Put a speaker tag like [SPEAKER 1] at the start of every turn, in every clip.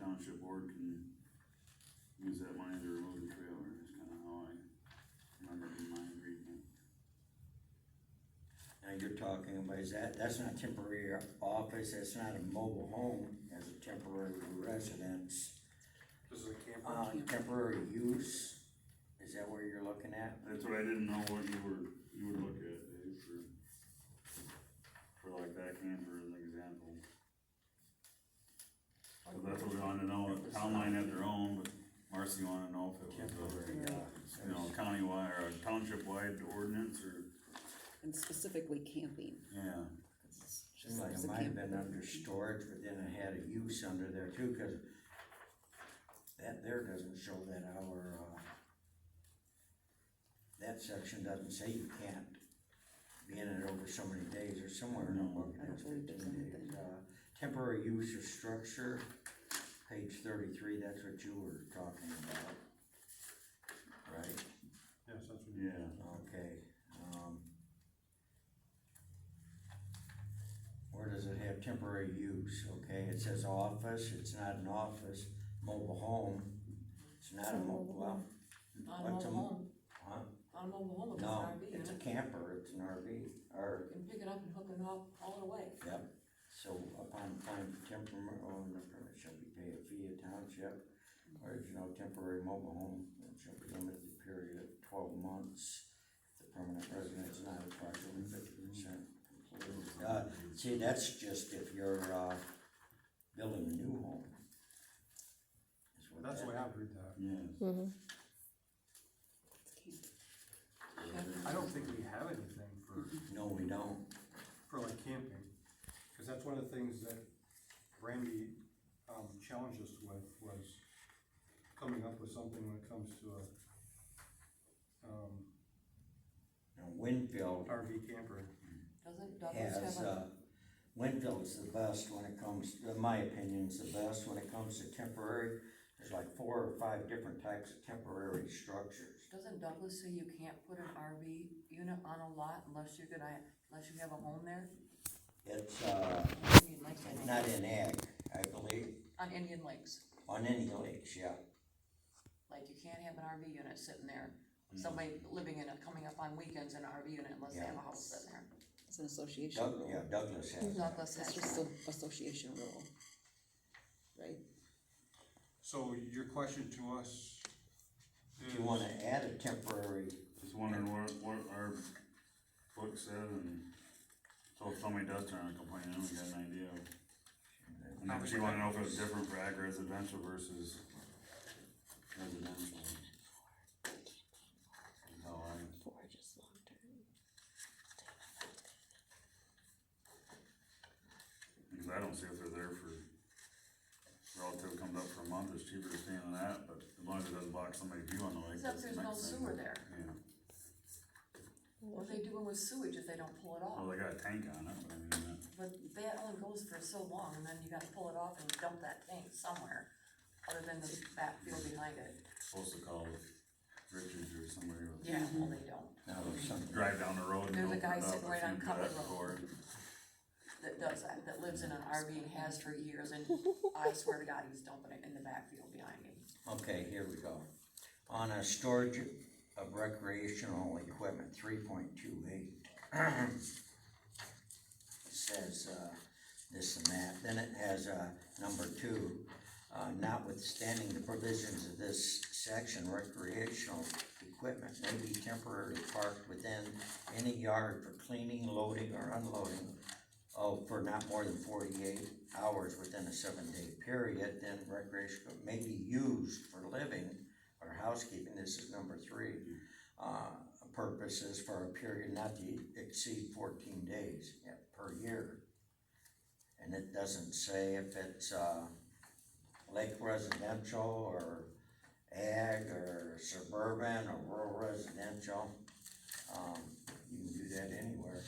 [SPEAKER 1] township board can use that money to remove the trailer, is kinda how I remember in my agreement.
[SPEAKER 2] Now you're talking about, is that, that's not temporary office, that's not a mobile home, that's a temporary residence.
[SPEAKER 3] This is a camper.
[SPEAKER 2] Uh, temporary use, is that where you're looking at?
[SPEAKER 1] That's what I didn't know what you were, you would look at, Dave, for, for like that camper as an example. So that's what we wanted to know, if town line had their own, but Marcy wanted to know if it was,
[SPEAKER 2] Temporary,
[SPEAKER 1] a, you know,
[SPEAKER 2] uh,
[SPEAKER 1] countywide or township wide ordinance or,
[SPEAKER 4] and specifically camping.
[SPEAKER 1] yeah.
[SPEAKER 4] 'cause it's
[SPEAKER 2] seems
[SPEAKER 4] just-
[SPEAKER 2] like
[SPEAKER 4] it's
[SPEAKER 2] it
[SPEAKER 4] a
[SPEAKER 2] might have
[SPEAKER 4] camp-
[SPEAKER 2] been under storage, but then it had a use under there too, cause that there doesn't show that our, uh, that section doesn't say you can't be in it over so many days or somewhere in the book,
[SPEAKER 4] I don't
[SPEAKER 2] it's
[SPEAKER 4] believe there's
[SPEAKER 2] fifteen days.
[SPEAKER 4] anything.
[SPEAKER 2] Uh, Temporary use of structure, page thirty-three, that's what you were talking about. Right?
[SPEAKER 3] Yes, that's what you.
[SPEAKER 1] Yeah,
[SPEAKER 2] Okay, um. Where does it have temporary use, okay, it says office, it's not an office, mobile home, it's not a
[SPEAKER 4] It's a
[SPEAKER 2] mobile,
[SPEAKER 4] mobile
[SPEAKER 2] well,
[SPEAKER 5] On
[SPEAKER 2] What's a
[SPEAKER 5] mobile
[SPEAKER 2] mo-
[SPEAKER 5] home,
[SPEAKER 2] huh?
[SPEAKER 5] on mobile home, it's an
[SPEAKER 2] No,
[SPEAKER 5] RV
[SPEAKER 2] it's a
[SPEAKER 5] unit,
[SPEAKER 2] camper, it's an RV, or,
[SPEAKER 5] you can pick it up and hook it up all the way.
[SPEAKER 2] yep, so upon applying for temporary owner permit shall be paid a fee of township, or if you know temporary mobile home, it shall be limited to a period of twelve months. The permanent resident is not approximately fifty percent complete. Uh, see, that's just if you're, uh, building a new home. Is what
[SPEAKER 3] That's the
[SPEAKER 2] that-
[SPEAKER 3] way I've read that.
[SPEAKER 1] yes.
[SPEAKER 4] it's camping.
[SPEAKER 3] I don't think we have anything for,
[SPEAKER 2] No, we don't,
[SPEAKER 3] for like camping, cause that's one of the things that Randy, um, challenged us with was coming up with something when it comes to a, um,
[SPEAKER 2] Now, Winfield
[SPEAKER 3] RV camper.
[SPEAKER 5] Doesn't Douglas
[SPEAKER 2] has,
[SPEAKER 5] have a,
[SPEAKER 2] uh, Winfield's the best when it comes, in my opinion, is the best when it comes to temporary. There's like four or five different types of temporary structures.
[SPEAKER 5] doesn't Douglas say you can't put an RV unit on a lot unless you're gonna, unless you have a home there?
[SPEAKER 2] It's, uh,
[SPEAKER 5] Indian Lakes, I
[SPEAKER 2] it's
[SPEAKER 5] think.
[SPEAKER 2] not in ag, I believe,
[SPEAKER 5] On Indian Lakes,
[SPEAKER 2] on any lakes, yeah.
[SPEAKER 5] like you can't have an RV unit sitting there,
[SPEAKER 2] Hmm.
[SPEAKER 5] somebody living in it, coming up on weekends in an RV unit unless they have a house sitting there.
[SPEAKER 4] It's an association
[SPEAKER 2] Doug, yeah,
[SPEAKER 4] rule.
[SPEAKER 2] Douglas has. that.
[SPEAKER 5] Douglas
[SPEAKER 4] It's
[SPEAKER 5] has
[SPEAKER 4] just
[SPEAKER 5] that.
[SPEAKER 4] an association rule, right?
[SPEAKER 3] So your question to us is.
[SPEAKER 2] If you wanna add a temporary,
[SPEAKER 1] Just wondering what, what our book said and so if somebody does turn a complaint in, we got an idea of. And then she wanted to know if it was different for ag residential versus residential. Is how I-
[SPEAKER 4] For just long term.
[SPEAKER 1] Because I don't see if they're there for, relative comes up for a month, it's cheaper to stay on that, but as long as it doesn't block somebody's view on the lake.
[SPEAKER 5] Except
[SPEAKER 1] that's the
[SPEAKER 5] there's no
[SPEAKER 1] next thing.
[SPEAKER 5] sewer there.
[SPEAKER 1] Yeah,
[SPEAKER 5] What are they doing with sewage if they don't pull it
[SPEAKER 1] well,
[SPEAKER 5] off?
[SPEAKER 1] Oh, they got a tank on it, but I mean, that.
[SPEAKER 5] But that only goes for so long, and then you gotta pull it off and dump that tank somewhere, other than the backfield behind it.
[SPEAKER 1] supposed to call Richards or somebody. or-
[SPEAKER 5] Yeah, well, they don't.
[SPEAKER 2] now there's something,
[SPEAKER 1] Drive down the road and.
[SPEAKER 5] There's a
[SPEAKER 1] open
[SPEAKER 5] guy
[SPEAKER 1] it up
[SPEAKER 5] sitting
[SPEAKER 1] if
[SPEAKER 5] right
[SPEAKER 1] you
[SPEAKER 5] on
[SPEAKER 1] do
[SPEAKER 5] Cutler
[SPEAKER 1] that
[SPEAKER 5] Road.
[SPEAKER 1] before.
[SPEAKER 5] That does that, that lives in an RV and has for years, and I swear to God, he's dumping it in the backfield behind me.
[SPEAKER 2] okay, here we go. On a storage of recreational equipment, three point two eight. Says, uh, this and that, then it has, uh, number two. Uh, notwithstanding the provisions of this section, recreational equipment may be temporarily parked within any yard for cleaning, loading, or unloading of, Oh, for not more than forty-eight hours within a seven-day period, then recreational may be used for living or housekeeping, this is number three, uh, purposes for a period not to exceed fourteen days, yeah, per year. And it doesn't say if it's, uh, lake residential or ag or suburban or rural residential. Um, you can do that anywhere,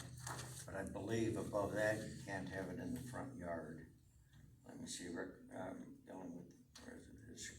[SPEAKER 2] but I believe above that, you can't have it in the front yard. Let me see, rec- um, dealing with residential